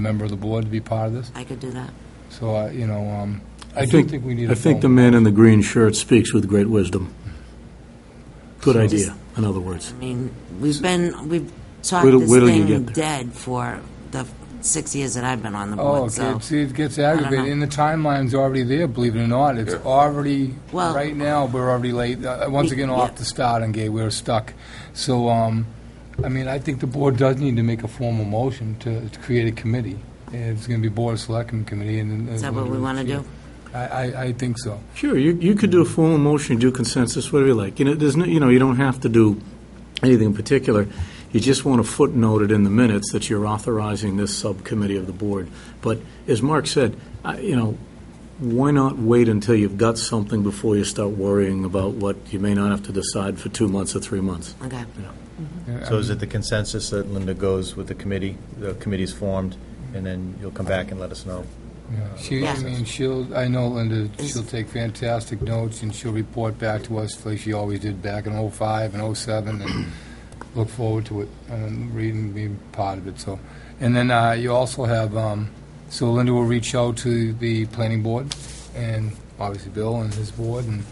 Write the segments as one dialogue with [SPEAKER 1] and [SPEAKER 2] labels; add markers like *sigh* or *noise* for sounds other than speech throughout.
[SPEAKER 1] member of the board to be part of this.
[SPEAKER 2] I could do that.
[SPEAKER 1] So, uh, you know, um, I do think we need a
[SPEAKER 3] I think the
[SPEAKER 1] phone.
[SPEAKER 3] man in the green shirt speaks with great wisdom. Good
[SPEAKER 1] So-
[SPEAKER 3] idea, in other words.
[SPEAKER 2] I mean, we've been, we've talked
[SPEAKER 3] Wait till-
[SPEAKER 2] this
[SPEAKER 3] wait till you
[SPEAKER 2] thing
[SPEAKER 3] get
[SPEAKER 2] dead for the six years that I've been on the
[SPEAKER 1] Oh,
[SPEAKER 2] board,
[SPEAKER 1] okay,
[SPEAKER 2] so.
[SPEAKER 1] see, it gets
[SPEAKER 2] know.
[SPEAKER 1] aggravated, and the timeline's already there, believe it or not. It's already,
[SPEAKER 2] Well-
[SPEAKER 1] right now, we're already late, Uh, once
[SPEAKER 2] We-
[SPEAKER 1] again,
[SPEAKER 2] yeah.
[SPEAKER 1] off the starting gate, we're stuck. So, um, I mean, I think the board does need to make a formal motion to to create a committee. And It's going to be Board of Selectmen Committee, and... uh,
[SPEAKER 2] Is that what we want to do?
[SPEAKER 1] I, I, I think so.
[SPEAKER 3] Sure, you, you could do a formal motion, do consensus, whatever you like. You know, there's no, you know, you don't have to do anything in particular. You just want to footnote it in the minutes that you're authorizing this subcommittee of the board. But as Mark said, I- you know, why not wait until you've got something before you start worrying about what you may not have to decide for two months or three months?
[SPEAKER 2] Okay.
[SPEAKER 1] Yeah,
[SPEAKER 4] So is it the consensus that Linda goes with the committee, the committee's formed, and then you'll come back and let us know?
[SPEAKER 1] Yeah, She, I
[SPEAKER 2] Yeah.
[SPEAKER 1] mean, she'll, I know Linda,
[SPEAKER 2] Is-
[SPEAKER 1] she'll take fantastic notes, and she'll report back to us like she always did back in '05 and '07,
[SPEAKER 2] *clears throat*
[SPEAKER 1] and look forward to it, and reading, being part of it, so. And then uh, you also have, um, so Linda will reach out to the planning board, and obviously Bill and his board, and,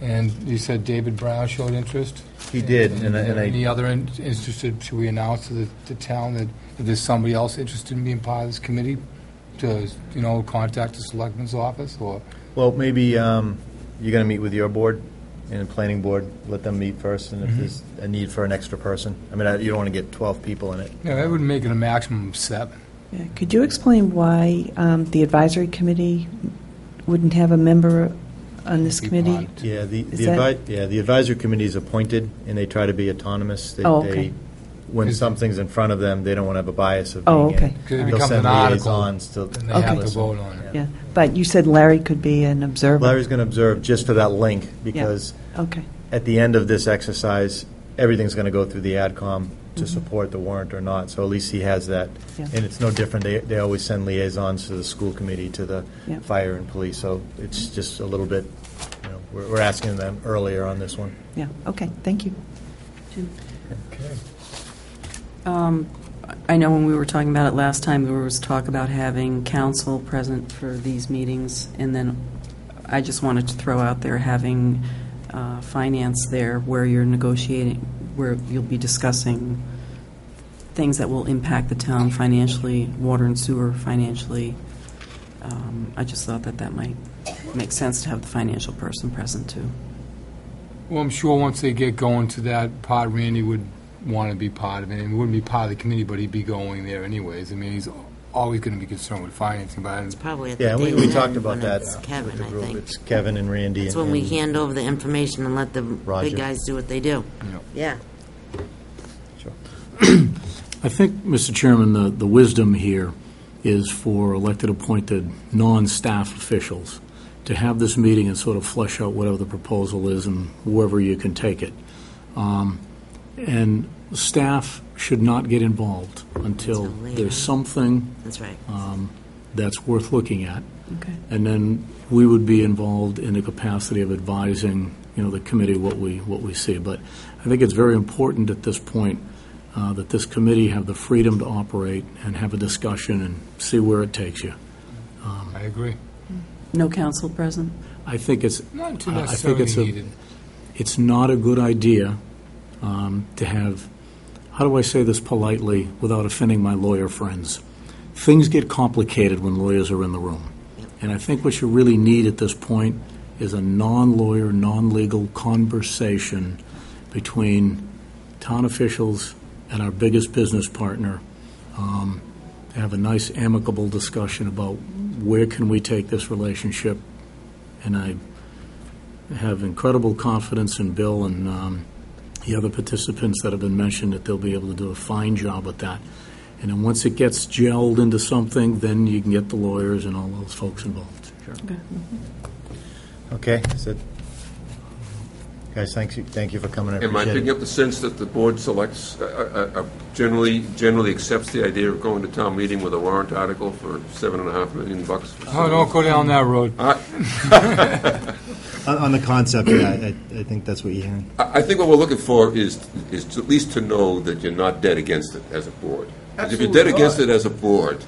[SPEAKER 1] and you said David Brown showed interest?
[SPEAKER 4] He did, and I- and
[SPEAKER 1] Any
[SPEAKER 4] I,
[SPEAKER 1] other in- interested, should we announce to the, the town that, that there's somebody else interested in being part of this committee? To, you know, contact the selectman's office, or,
[SPEAKER 4] well, maybe um, you're going to meet with your board and the planning board, let them meet first, and
[SPEAKER 1] Mm-hmm.
[SPEAKER 4] if there's a need for an extra person, I mean, I- you don't want to get 12 people in it.
[SPEAKER 1] no, that would make it a maximum of seven.
[SPEAKER 5] Yeah, Could you explain why um, the advisory committee wouldn't have a member on this
[SPEAKER 1] Be
[SPEAKER 5] committee?
[SPEAKER 1] part.
[SPEAKER 4] Yeah, the, the
[SPEAKER 5] Is that-
[SPEAKER 4] advi- yeah, the advisory committee is appointed, and they try to be autonomous. They-
[SPEAKER 5] Oh, okay.
[SPEAKER 4] they- When
[SPEAKER 1] Is-
[SPEAKER 4] something's in front of them, they don't want to have a bias of being
[SPEAKER 5] Oh,
[SPEAKER 4] in.
[SPEAKER 5] okay.
[SPEAKER 1] Could it
[SPEAKER 4] They'll
[SPEAKER 1] becomes
[SPEAKER 4] send
[SPEAKER 1] an article,
[SPEAKER 4] liaisons to
[SPEAKER 1] And they have to
[SPEAKER 4] listen.
[SPEAKER 1] vote on it.
[SPEAKER 5] Yeah, but you said Larry could be an observer.
[SPEAKER 4] Larry's going to observe just for that link, because
[SPEAKER 5] Okay,
[SPEAKER 4] at the end of this exercise, everything's going to go through the AdCom to support the warrant or not, so at least he has that.
[SPEAKER 5] Mm-hmm. Yeah.
[SPEAKER 4] And it's no different, they, they always send liaisons to the school committee, to the
[SPEAKER 5] Yeah.
[SPEAKER 4] fire and police, so it's just a little bit, you know, we're, we're asking them earlier on this one.
[SPEAKER 5] yeah, okay, thank you.
[SPEAKER 6] Um, I know when we were talking about it last time, there was talk about having council present for these meetings, and then I just wanted to throw out there having uh, finance there where you're negotiating, where you'll be discussing things that will impact the town financially, water and sewer financially. Um, I just thought that that might make sense to have the financial person present, too.
[SPEAKER 1] Well, I'm sure once they get going to that part, Randy would want to be part of it, and he wouldn't be part of the committee, but he'd be going there anyways. I mean, he's always going to be concerned with financing, but I
[SPEAKER 2] It's probably at the
[SPEAKER 4] Yeah, we,
[SPEAKER 2] day
[SPEAKER 4] we
[SPEAKER 2] then
[SPEAKER 4] talked about
[SPEAKER 2] when
[SPEAKER 4] that.
[SPEAKER 2] it's
[SPEAKER 4] with
[SPEAKER 2] Kevin,
[SPEAKER 4] the
[SPEAKER 2] I
[SPEAKER 4] group.
[SPEAKER 2] think.
[SPEAKER 4] It's Kevin and Randy.
[SPEAKER 2] That's
[SPEAKER 4] and-
[SPEAKER 2] when we
[SPEAKER 4] and-
[SPEAKER 2] hand over the information and let the
[SPEAKER 4] Roger.
[SPEAKER 2] big guys do what they do.
[SPEAKER 1] Yeah.
[SPEAKER 2] Yeah.
[SPEAKER 3] I think, Mr. Chairman, the, the wisdom here is for elected appointed, non-staff officials to have this meeting and sort of flesh out whatever the proposal is and wherever you can take it. Um, And staff should not get involved until
[SPEAKER 2] Until later.
[SPEAKER 3] there's something
[SPEAKER 2] That's right.
[SPEAKER 3] that's worth looking at.
[SPEAKER 5] Okay.
[SPEAKER 3] And then we would be involved in the capacity of advising, you know, the committee what we, what we see. But I think it's very important at this point uh, that this committee have the freedom to operate and have a discussion and see where it takes you.
[SPEAKER 1] I agree.
[SPEAKER 6] No council present?
[SPEAKER 3] I think it's,
[SPEAKER 1] Not too
[SPEAKER 3] I- I
[SPEAKER 1] necessarily
[SPEAKER 3] think it's a-
[SPEAKER 1] needed.
[SPEAKER 3] it's not a good idea um, to have, how do I say this politely without offending my lawyer friends? Things get complicated when lawyers are in the room. And I think what you really need at this point is a non-lawyer, non-legal conversation between town officials and our biggest business partner. um, to Have a nice amicable discussion about where can we take this relationship? And I have incredible confidence in Bill and um, the other participants that have been mentioned, that they'll be able to do a fine job with that. And then once it gets gelled into something, then you can get the lawyers and all those folks involved.
[SPEAKER 4] Okay, so, guys, thanks, you- thank you for coming, I
[SPEAKER 7] Am I
[SPEAKER 4] appreciate
[SPEAKER 7] picking
[SPEAKER 4] it.
[SPEAKER 7] up the sense that the board selects, uh, uh, uh, generally, generally accepts the idea of going to town meeting with a warrant article for seven and a half million bucks? for
[SPEAKER 1] Oh, don't go down that road.
[SPEAKER 4] On, on the concept, yeah, I, I- I think that's what you're hearing.
[SPEAKER 7] I I think what we're looking for is, is to- at least to know that you're not dead against it as a board. If you're dead
[SPEAKER 1] Absolutely
[SPEAKER 7] against
[SPEAKER 1] not.
[SPEAKER 7] it as a board,